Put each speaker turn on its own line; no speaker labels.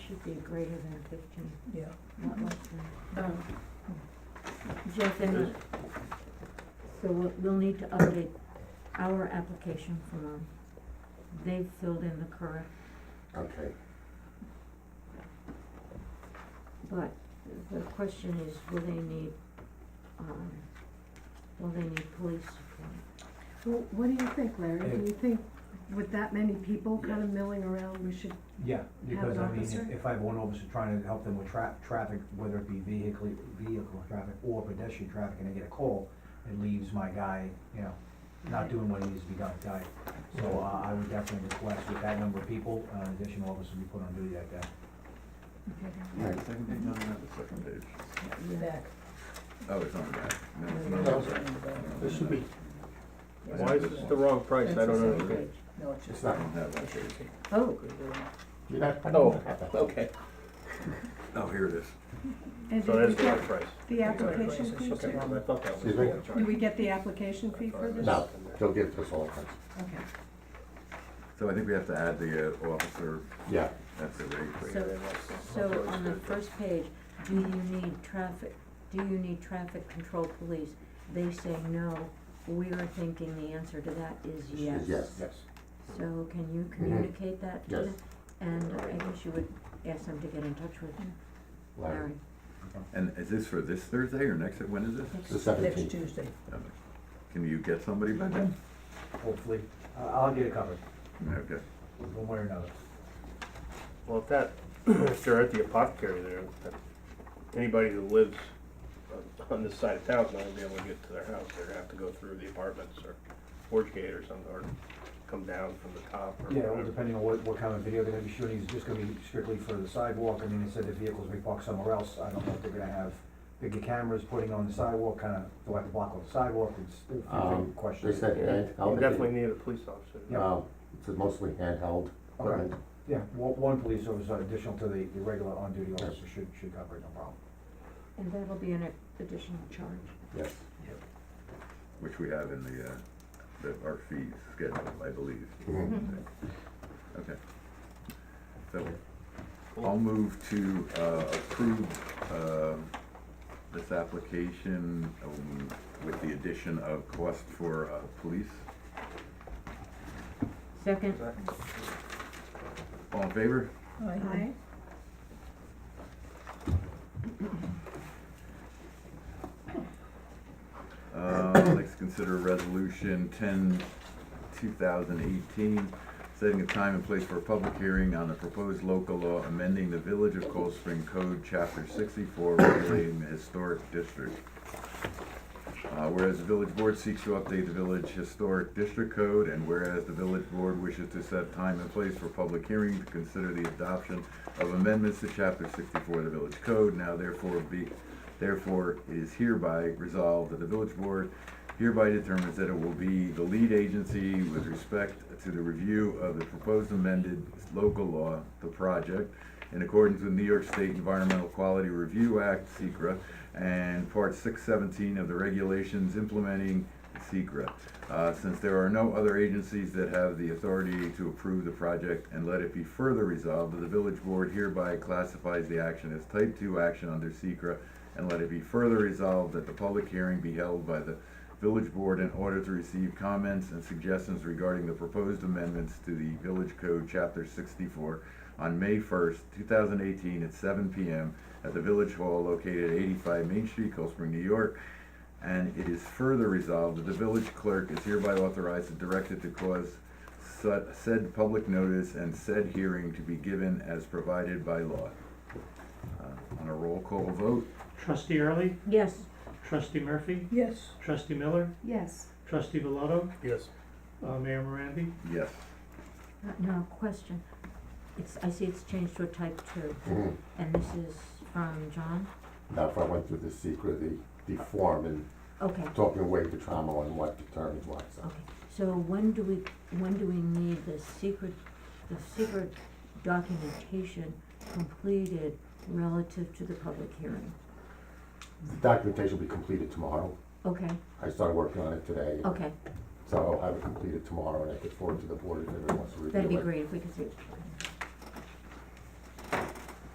should be greater than fifteen,
yeah.
not less than.
Um, Jeff, and
Yes.
so we'll, we'll need to update our application form. They've filled in the correct,
Okay,
but the question is, will they need, um, will they need police support?
Well, what do you think, Larry?
Do
you think with that many people kind of milling around, we should?
Yeah, because
an
I mean,
officer?
if- if I have one officer trying to help them with tra- traffic, whether it be vehicle, vehicle traffic or pedestrian traffic, and I get a call, it leaves my guy, you know, not doing what needs to be done, guy. So uh, I would definitely request with that number of people, uh, an additional officer be put on duty that day.
right,
Second page, no, not the second page.
Back.
Oh, it's on the back. No, it's not
No.
on the back. No,
This should be-
I
Why
have
is this
one.
the wrong price? I
That's the
don't
same
understand.
page. No, it's just.
I don't have that page.
Oh,
you're not.
Oh, okay.
Oh, here it is.
And
So
did we
that's the right
get
price.
the application fee
Okay,
too?
I thought that was.
Excuse me?
Did we get the application fee for this?
No, they'll give us all kinds,
Okay.
So I think we have to add the uh, officer,
yeah,
that's the rate for
so, so on
um,
the first page, do you need traffic, do you need traffic control police? They say no, we are thinking the answer to that is yes.
yes,
So can you communicate that to
Yes.
them? And I guess you would ask them to get in touch with
Larry,
Larry.
And is this for this Thursday or next, when is this?
it's the
Next
seventeenth,
Tuesday.
Okay. Can you get somebody by then?
Hopefully, I- I'll get it covered,
Okay.
one way or another.
Well, if that, if they're at the apothecary there, that- anybody who lives on- on this side of town's not gonna be able to get to their house. They're gonna have to go through the apartments or Forge Gate or something, or come down from the top or
Yeah, well,
whatever.
depending on what, what kind of video they're gonna be shooting, is it just gonna be strictly for the sidewalk, I mean, they said the vehicles may park somewhere else, I don't know if they're gonna have bigger cameras putting on the sidewalk, kinda, do I have to block off the sidewalk, it's, it's a
Um,
big question.
they said,
Yeah,
hand- how
You
many-
definitely need a police officer.
um, it's mostly handheld equipment.
Yeah, one, one police officer additional to the, the regular on-duty officer should, should cover it, no problem.
And that'll be an additional charge.
Yes,
Which we have in the, uh, the, our fees schedule, I believe.
Mm-hmm.
Mhm.
Okay. So, I'll move to, uh, approve, uh, this application, um, with the addition of cost for, uh, police.
Second,
All in favor?
Aye.
Aye.
Uh, I'd like to consider resolution ten, two thousand eighteen, setting a time and place for a public hearing on the proposed local law amending the Village of Cold Spring Code, chapter sixty-four, regulating the historic district. Uh, whereas the village board seeks to update the village historic district code, and whereas the village board wishes to set time and place for public hearing to consider the adoption of amendments to chapter sixty-four of the village code, now therefore be, Therefore, it is hereby resolved that the village board hereby determines that it will be the lead agency with respect to the review of the proposed amended local law, the project, in accordance with New York State Environmental Quality Review Act, SECRA, and Part six seventeen of the regulations implementing SECRA. Uh, since there are no other agencies that have the authority to approve the project, and let it be further resolved that the village board hereby classifies the action as type two action under SECRA and let it be further resolved that the public hearing be held by the village board in order to receive comments and suggestions regarding the proposed amendments to the village code, chapter sixty-four, on May first, two thousand eighteen, at seven P M. at the village hall located at eighty-five Main Street, Cold Spring, New York. And it is further resolved that the village clerk is hereby authorized and directed to cause su- said public notice and said hearing to be given as provided by law. Uh, On a roll call vote,
Trustee Early,
yes,
Trustee Murphy,
Yes.
Trustee Miller,
Yes.
Trustee Veloto,
Yes.
uh, Mayor Morandi.
yes.
Uh, now, question. It's, I see it's changed to a type two,
Mhm.
and this is from John?
Now, if I went through the secret, the, the form and
Okay,
talking away the trauma and what determines what, so.
okay. So when do we, when do we need the secret, the secret documentation completed relative to the public hearing?
The documentation will be completed tomorrow.
Okay,
I started working on it today,
okay,
so I'll have it completed tomorrow and I could forward to the board if everyone wants to review it.
that'd be great if we could see.